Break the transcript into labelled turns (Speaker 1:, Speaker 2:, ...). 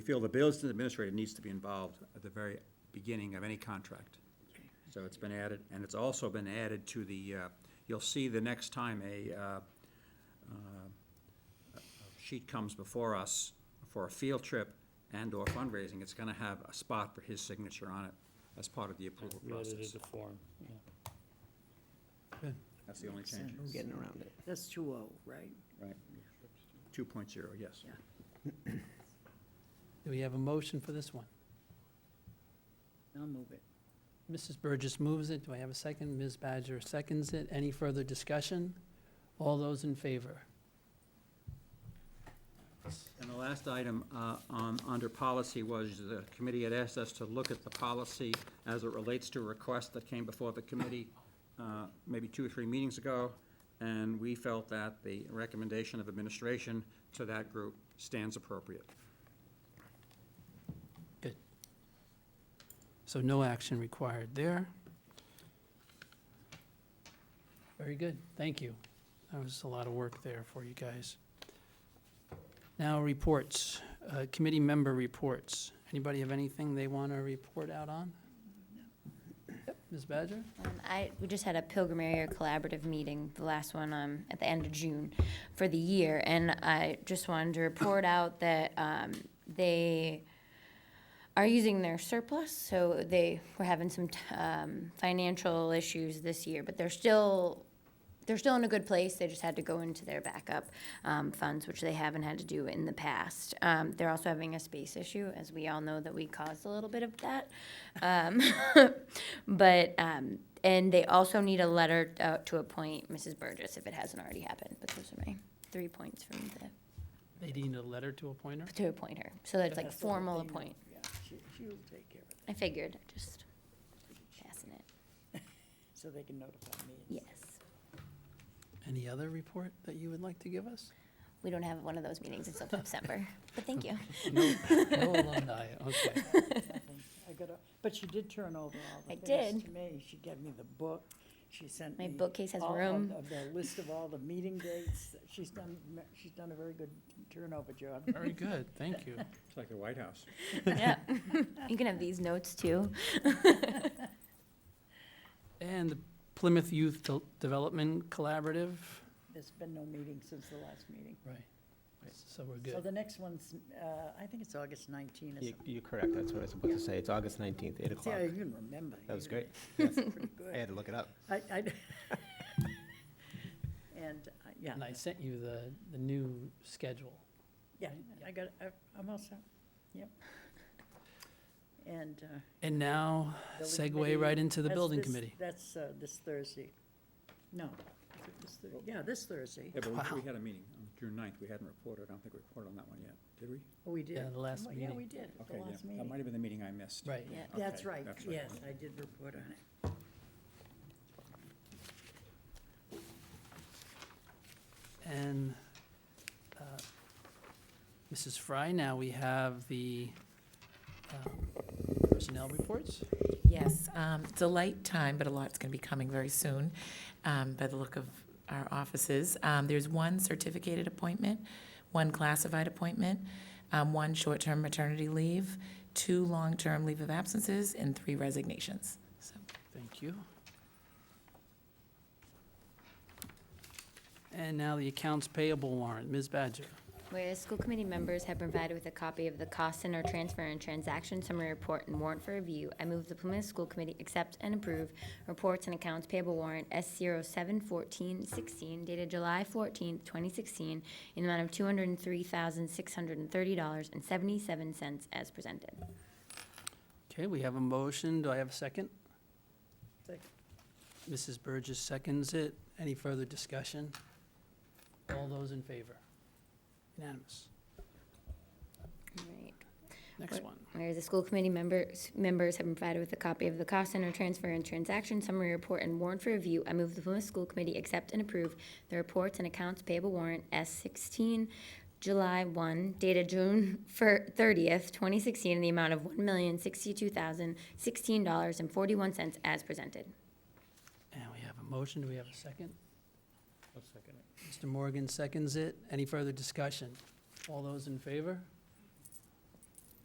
Speaker 1: We feel the business administrator needs to be involved at the very beginning of any contract. So it's been added, and it's also been added to the, uh, you'll see the next time a uh, uh, sheet comes before us for a field trip and/or fundraising, it's gonna have a spot for his signature on it as part of the approval
Speaker 2: We edited
Speaker 1: process.
Speaker 2: the form, yeah.
Speaker 1: That's the only change,
Speaker 3: We're getting around it.
Speaker 4: That's two oh, right?
Speaker 1: right? Two point zero, yes.
Speaker 4: Yeah.
Speaker 3: Do we have a motion for this one?
Speaker 4: I'll move it.
Speaker 3: Mrs. Burgess moves it. Do I have a second? Ms. Badger seconds it. Any further discussion? All those in favor?
Speaker 1: And the last item uh, on, under policy was the committee had asked us to look at the policy as it relates to a request that came before the committee uh, maybe two or three meetings ago, and we felt that the recommendation of administration to that group stands appropriate.
Speaker 3: So no action required there. Very good, thank you. That was a lot of work there for you guys. Now, reports, Uh, committee member reports. Anybody have anything they want to report out on? Yep, Ms. Badger?
Speaker 5: Um, I, we just had a Pilgrim Area Collaborative meeting, the last one, um, at the end of June for the year, and I just wanted to report out that, um, they are using their surplus, so they were having some, t- um, financial issues this year, but they're still, they're still in a good place, they just had to go into their backup, um, funds, which they haven't had to do in the past. Um, they're also having a space issue, as we all know that we caused a little bit of that. um, But, um, and they also need a letter uh, to appoint Mrs. Burgess if it hasn't already happened, but those are my three points from the,
Speaker 3: They need a letter to appoint her?
Speaker 5: to appoint her. So that's like
Speaker 4: That's all
Speaker 5: formal
Speaker 4: they know.
Speaker 5: appoint.
Speaker 4: Yeah, she, she'll take care of it,
Speaker 5: I figured, just passing it.
Speaker 4: so they can notify me.
Speaker 5: Yes.
Speaker 3: Any other report that you would like to give us?
Speaker 5: We don't have one of those meetings until December, but thank you.
Speaker 3: No Oh, alumni, okay.
Speaker 4: Nothing. I got a, but she did turn over all
Speaker 5: I
Speaker 4: the things
Speaker 5: did.
Speaker 4: to me. She gave me the book, she sent
Speaker 5: My
Speaker 4: me.
Speaker 5: bookcase has
Speaker 4: all of
Speaker 5: room.
Speaker 4: the- The list of all the meeting dates. She's done, she's done a very good turnover job.
Speaker 3: Very good, thank you.
Speaker 1: It's like the White House.
Speaker 5: Yeah. You can have these notes too.
Speaker 3: And the Plymouth Youth Del- Development Collaborative?
Speaker 4: There's been no meeting since the last meeting.
Speaker 3: Right. So we're
Speaker 4: So
Speaker 3: good.
Speaker 4: the next one's, uh, I think it's August 19 or
Speaker 6: You-
Speaker 4: something.
Speaker 6: You're correct, that's what I was about to say. It's August 19th, 8
Speaker 4: See,
Speaker 6: o'clock.
Speaker 4: I even remember.
Speaker 6: That was
Speaker 4: You-
Speaker 6: great.
Speaker 4: That's pretty good.
Speaker 6: I had to look it up.
Speaker 4: I, I, and, uh, yeah,
Speaker 3: And I sent you the, the new schedule.
Speaker 4: yeah, I got, I- I'm all set, yep. And. uh,
Speaker 3: And now
Speaker 4: building committee,
Speaker 3: segue right into the
Speaker 4: that's
Speaker 3: building
Speaker 4: this-
Speaker 3: committee.
Speaker 4: That's uh, this Thursday. No, is it this Thur- yeah, this Thursday.
Speaker 1: Yeah, but we- we had a meeting on June 9th. We hadn't reported. I don't think we reported on that one yet, did we?
Speaker 4: Oh, we did.
Speaker 3: the last
Speaker 4: Oh, Yeah,
Speaker 3: meeting.
Speaker 4: we did, at the
Speaker 1: Okay, yeah.
Speaker 4: last
Speaker 1: That might
Speaker 4: meeting.
Speaker 1: have been the meeting I missed.
Speaker 3: Right.
Speaker 5: Yeah.
Speaker 1: Okay,
Speaker 4: That's right,
Speaker 1: that's right.
Speaker 4: yes, I did report on it.
Speaker 3: And uh, Mrs. Fry, now we have the um, personnel reports.
Speaker 7: Yes, um, it's a light time, but a lot's going to be coming very soon um, by the look of our offices. Um, There's one certificated appointment, one classified appointment, um, one short-term maternity leave, two long-term leave of absences, and three resignations. So
Speaker 3: Thank you. And now the accounts payable warrant. Ms. Badger.
Speaker 5: Whereas school committee members have been provided with a copy of the cost center transfer and transaction summary report and warrant for review, I move the Plymouth School Committee accept and approve reports and accounts payable warrant S zero seven fourteen sixteen dated July fourteenth, twenty sixteen, in the amount of two hundred and three thousand, six hundred and thirty dollars and seventy-seven cents as presented.
Speaker 3: Okay, we have a motion. Do I have a second?
Speaker 4: Second.
Speaker 3: Mrs. Burgess seconds it. Any further discussion? All those in favor? Unanimous.
Speaker 5: Right.
Speaker 3: Next one.
Speaker 5: Whereas the school committee members, members have been provided with a copy of the cost center transfer and transaction summary report and warrant for review, I move the Plymouth School Committee accept and approve the reports and accounts payable warrant S sixteen, July one, dated June thirtieth, twenty sixteen, in the amount of one million sixty-two thousand sixteen dollars and forty-one cents as presented.
Speaker 3: And we have a motion. Do we have a second?
Speaker 2: I'll second it.
Speaker 3: Mr. Morgan seconds it. Any further discussion? All those in favor?